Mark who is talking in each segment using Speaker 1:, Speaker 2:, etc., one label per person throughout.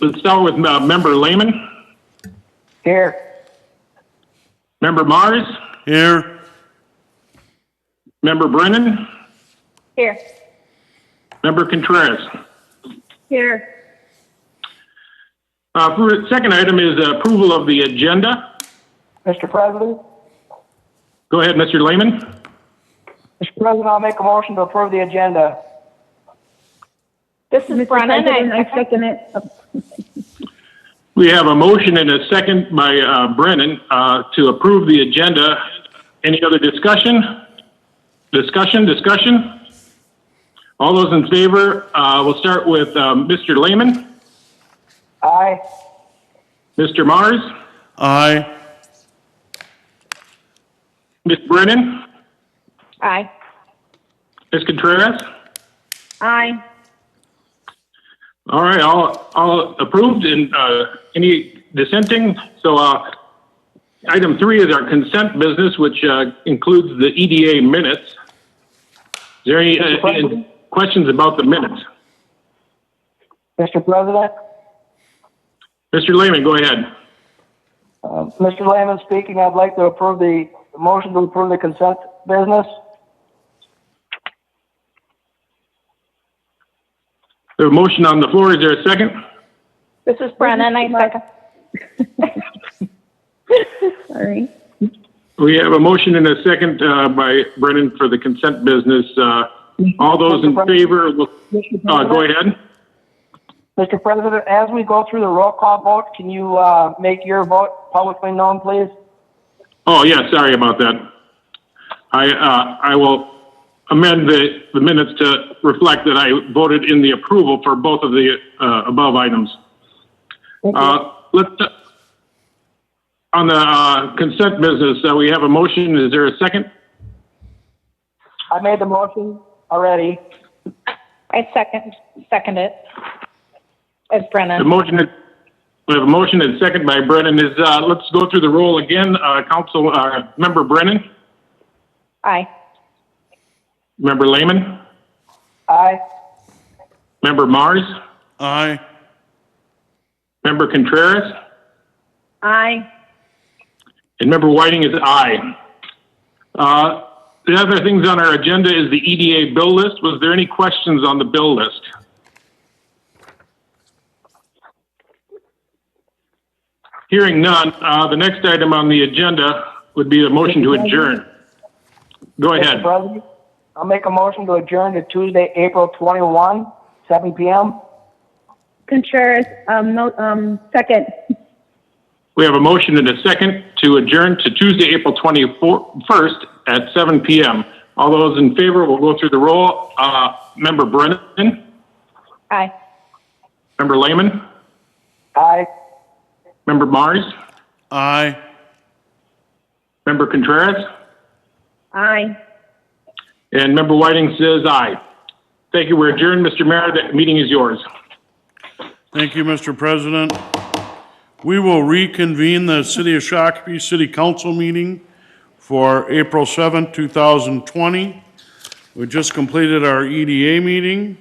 Speaker 1: Let's start with uh, Member Lehman,
Speaker 2: Here.
Speaker 1: Member Mars,
Speaker 3: Here.
Speaker 1: Member Brennan,
Speaker 2: Here.
Speaker 1: Member Contreras.
Speaker 2: Here.
Speaker 1: Uh, for- Second item is approval of the agenda.
Speaker 2: Mr. President?
Speaker 1: Go ahead, Mr. Lehman.
Speaker 2: Mr. President, I'll make a motion to approve the agenda.
Speaker 4: This is Brennan.
Speaker 5: President,
Speaker 4: I-
Speaker 5: I second it.
Speaker 1: We have a motion and a second by uh, Brennan uh, to approve the agenda. Any other discussion? Discussion, discussion? All those in favor, uh, we'll start with um, Mr. Lehman,
Speaker 2: Aye.
Speaker 1: Mr. Mars,
Speaker 3: Aye.
Speaker 1: Ms. Brennan,
Speaker 4: Aye.
Speaker 1: Ms. Contreras.
Speaker 4: Aye.
Speaker 1: All right, all, all approved and uh, any dissenting? So uh, item three is our consent business, which uh, includes the EDA minutes. Is there any uh,
Speaker 2: President?
Speaker 1: questions about the minutes?
Speaker 2: Mr. President?
Speaker 1: Mr. Lehman, go ahead.
Speaker 2: Um, Mr. Lehman speaking. I'd like to approve the, the motion to approve the consent business.
Speaker 1: There's a motion on the floor. Is there a second?
Speaker 4: This is Brennan. I second.
Speaker 5: Sorry.
Speaker 1: We have a motion and a second uh, by Brennan for the consent business. Uh, All those in favor, will- uh, go ahead.
Speaker 2: Mr. President, as we go through the roll call vote, can you, uh, make your vote publicly known, please?
Speaker 1: Oh, yeah, sorry about that. I, uh, I will amend the, the minutes to reflect that I voted in the approval for both of the, uh, above items. Uh, let's, on the, uh, consent business, uh, we have a motion. Is there a second?
Speaker 2: I made the motion already.
Speaker 4: I second, second it. As
Speaker 1: The
Speaker 4: Brennan.
Speaker 1: motion, is- we have a motion and second by Brennan is, uh, let's go through the roll again. Uh, council, uh, member Brennan,
Speaker 4: Aye.
Speaker 1: member Lehman,
Speaker 2: Aye.
Speaker 1: member Mars,
Speaker 3: Aye.
Speaker 1: member Contreras,
Speaker 4: Aye.
Speaker 1: And member Whiting is aye. Uh, The other things on our agenda is the EDA bill list. Was there any questions on the bill list? Hearing none, uh, the next item on the agenda would be the motion to adjourn. Go ahead.
Speaker 2: Mr. President, I'll make a motion to adjourn to Tuesday, April 21, 7 p.m.
Speaker 5: Contreras, um, no, um, second.
Speaker 1: We have a motion and a second to adjourn to Tuesday, April 21st at 7 PM. All those in favor, we'll go through the roll. Uh, Member Brennan,
Speaker 4: Aye.
Speaker 1: member Lehman,
Speaker 2: Aye.
Speaker 1: member Mars,
Speaker 3: Aye.
Speaker 1: Member Contreras?
Speaker 5: Aye.
Speaker 1: And Member Whiting says aye. Thank you. We're adjourned, Mr. Mayor. That meeting is yours.
Speaker 3: Thank you, Mr. President. We will reconvene the City of Shakopee City Council meeting for April seventh, two 2020. We just completed our EDA meeting,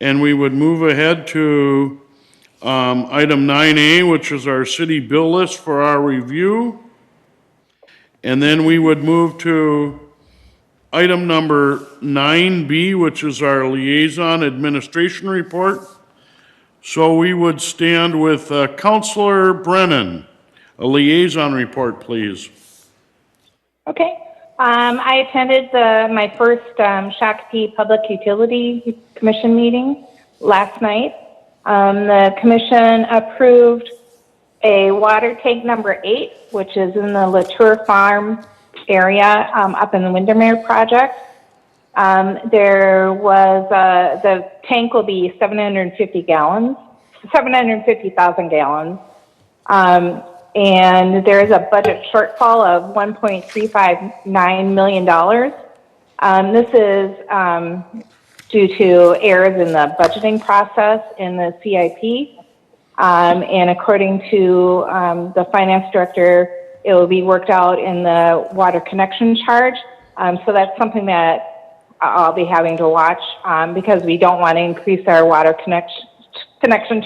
Speaker 3: and we would move ahead to um, item 9A, which is our city bill list for our review. And then we would move to item number 9B, which is our liaison administration report. So we would stand with uh, Counselor Brennan. A liaison report, please.
Speaker 4: Okay. Um, I attended the, my first, um, Shakopee Public Utility Commission meeting last night. Um, the commission approved a water tank number eight, which is in the Latour Farm area, um, up in the Windermere project. Um, there was, uh, the tank will be 750 gallons, 750,000 gallons. Um, and there is a budget shortfall of $1.359 million. Um, this is, um, due to errors in the budgeting process in the CIP. Um, and according to, um, the finance director, it will be worked out in the water connection charge. Um, so that's something that I'll be having to watch, um, because we don't want to increase our water connection, connection